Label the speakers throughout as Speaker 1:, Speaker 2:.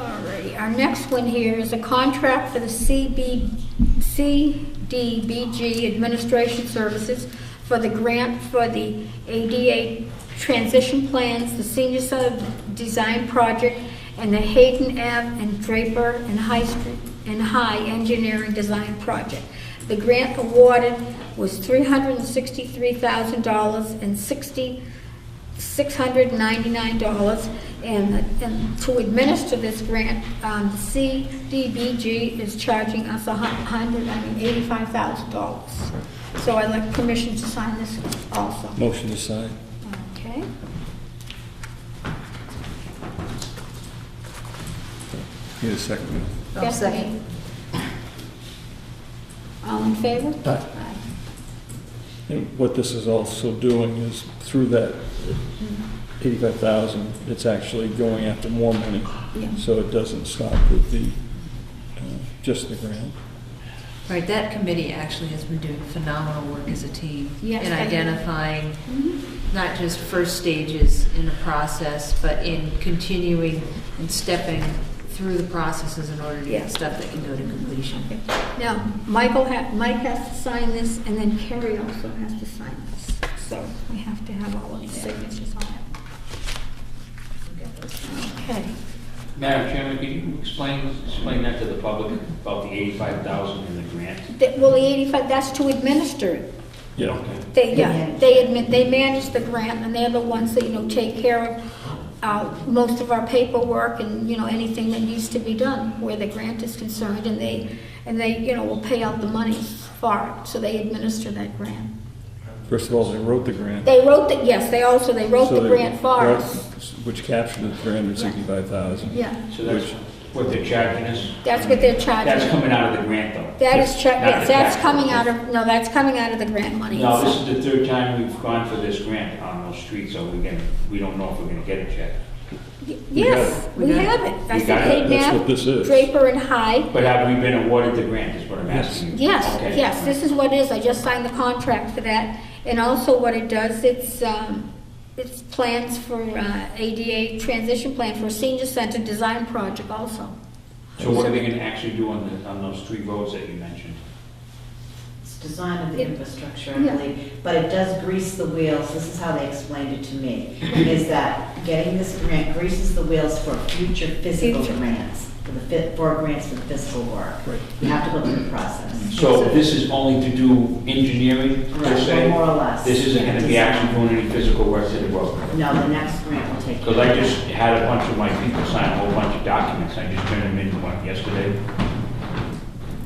Speaker 1: our next one here is a contract for the CB, CDBG Administration Services for the grant for the ADA Transition Plans, the Senior Center Design Project, and the Hayden Ave and Draper and High Street, and High Engineering Design Project. The grant awarded was $363,000 and 60 $699, and, and to administer this grant, um, CDBG is charging us a hundred, I mean, eighty-five thousand dollars. So I'd like permission to sign this also.
Speaker 2: Motion to sign.
Speaker 1: Okay.
Speaker 2: Need a second.
Speaker 3: I'll
Speaker 1: Yes,
Speaker 3: second.
Speaker 1: Nate? All in favor?
Speaker 2: Aye. And what this is also doing is through that eighty-five thousand, it's actually going after more money.
Speaker 1: Yeah.
Speaker 2: So it doesn't stop with the, uh, just the grant.
Speaker 3: Right, that committee actually has been doing phenomenal work as a team.
Speaker 1: Yes,
Speaker 3: In
Speaker 1: I-
Speaker 3: identifying
Speaker 1: Mhm.
Speaker 3: not just first stages in the process, but in continuing and stepping through the processes in order to
Speaker 1: Yeah.
Speaker 3: get stuff that can go to completion.
Speaker 1: Now, Michael, ha- Mike has to sign this, and then Carrie also has to sign this. So we have to have all of the signatures on it. Okay.
Speaker 4: Madam Chairman, could you explain, explain that to the public about the eighty-five thousand in the grant?
Speaker 1: That- Well, the 85, that's to administer it.
Speaker 2: Yeah.
Speaker 4: Okay.
Speaker 1: They, yeah,
Speaker 3: manage.
Speaker 1: they admit, they manage the grant, and they're the ones that, you know, take care of uh, most of our paperwork and, you know, anything that needs to be done where the grant is concerned, and they, and they, you know, will pay out the money for it, so they administer that grant.
Speaker 2: First of all, they wrote the grant.
Speaker 1: They wrote the, yes, they also, they wrote
Speaker 2: So
Speaker 1: the
Speaker 2: they
Speaker 1: grant for
Speaker 2: wrote-
Speaker 1: us.
Speaker 2: Which captured the three hundred sixty-five thousand.
Speaker 1: Yeah,
Speaker 4: So that's
Speaker 2: Which-
Speaker 4: what they're charging us?
Speaker 1: that's what they're
Speaker 4: That's
Speaker 1: charging.
Speaker 4: coming out of the grant, though?
Speaker 1: That is, cha-
Speaker 4: Not the
Speaker 1: yes, that's
Speaker 4: tax.
Speaker 1: coming out of, no, that's coming out of the grant money.
Speaker 4: No, this is the third time we've gone for this grant on those streets, so we can, we don't know if we're gonna get it yet.
Speaker 1: Yes,
Speaker 3: We
Speaker 1: we
Speaker 3: got it.
Speaker 1: have it. That's
Speaker 4: We
Speaker 1: the
Speaker 4: got it.
Speaker 1: Hayden
Speaker 2: That's what
Speaker 1: Ave,
Speaker 2: this is.
Speaker 1: Draper and High.
Speaker 4: But have we been awarded the grant, is what I'm asking you?
Speaker 1: Yes,
Speaker 4: Okay.
Speaker 1: yes, this is what it is. I just signed the contract for that. And also what it does, it's, um, it's plans for uh, ADA transition plan for a senior center design project also.
Speaker 4: So what are they gonna actually do on the, on those three roads that you mentioned?
Speaker 5: It's design of the
Speaker 1: Yeah.
Speaker 5: infrastructure, I
Speaker 1: Yeah.
Speaker 5: believe, but it does grease the wheels, this is how they explained it to me, is that getting this grant greases the wheels for future physical
Speaker 1: Future.
Speaker 5: grants, for the fit, for grants for physical work. You have to go through the process.
Speaker 4: So this is only to do engineering, per
Speaker 5: Correct,
Speaker 4: se?
Speaker 5: More or less.
Speaker 4: This isn't gonna be
Speaker 5: Design.
Speaker 4: actually doing any physical work to the road?
Speaker 5: No, the next grant will take.
Speaker 4: Because I just had a bunch of my people sign a whole bunch of documents, I just turned them into one yesterday,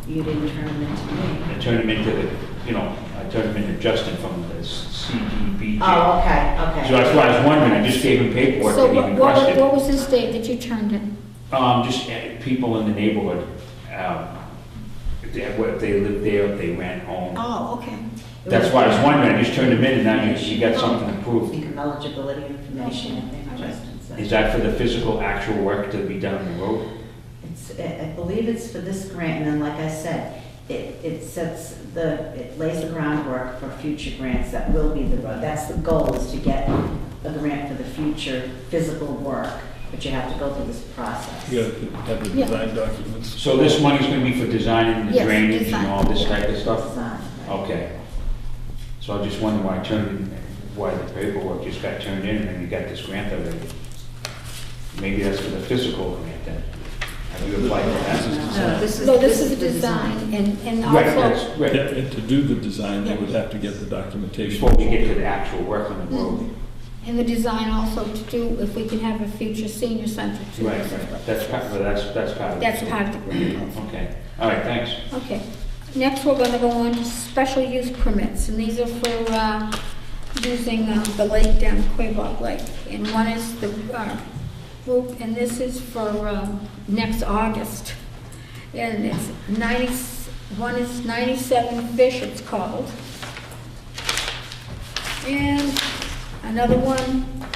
Speaker 5: You didn't turn them into me.
Speaker 4: I turned them into the, you know, I turned them into Justin from the CDBG.
Speaker 5: Oh, okay, okay.
Speaker 4: So that's why I was wondering, I just gave him paperwork
Speaker 1: So
Speaker 4: that he
Speaker 1: what, what what
Speaker 4: requested.
Speaker 1: was this date that you turned in?
Speaker 4: Um, just uh, people in the neighborhood, um, if they, if they lived there, if they ran home.
Speaker 1: Oh, okay.
Speaker 5: It
Speaker 4: That's
Speaker 5: was-
Speaker 4: why I was wondering, I just turned them in and now you, you got something approved.
Speaker 5: Speaker Eligibility information, I think Justin said.
Speaker 4: Is that for the physical, actual work to be done on the road?
Speaker 5: It's, I I believe it's for this grant, and then like I said, it, it sets the, it lays the groundwork for future grants that will be the road. That's the goal, is to get a grant for the future physical work, but you have to go through this process.
Speaker 2: You gotta have the
Speaker 1: Yeah.
Speaker 2: design documents.
Speaker 4: So this money's gonna be for designing the
Speaker 1: Yes,
Speaker 4: drainage
Speaker 1: design.
Speaker 4: and all this type of stuff?
Speaker 5: Design, right?
Speaker 4: Okay. So I just wondered why I turned, why the paperwork just got turned in and then you got this grant already. Maybe that's for the physical grant then. Have you applied for that?
Speaker 3: No, this is,
Speaker 1: So this is
Speaker 3: the
Speaker 1: a design, and, and
Speaker 4: Right,
Speaker 1: also,
Speaker 4: that's,
Speaker 2: Yeah,
Speaker 4: right.
Speaker 2: and to do the design, they would have to get the documentation.
Speaker 4: Before we get to the actual work on the road.
Speaker 1: and the design also to do if we can have a future senior center too.
Speaker 4: Right, right. That's part, well, that's, that's part of it.
Speaker 1: That's part of the grant.
Speaker 4: Okay. All right, thanks.
Speaker 1: Okay, next we're gonna go on to special use permits, and these are for, uh, using uh, the lake down Quabog Lake. And one is the, uh, group, and this is for, um, next August. And it's ninety, one is ninety-seven Fish, it's called. And another one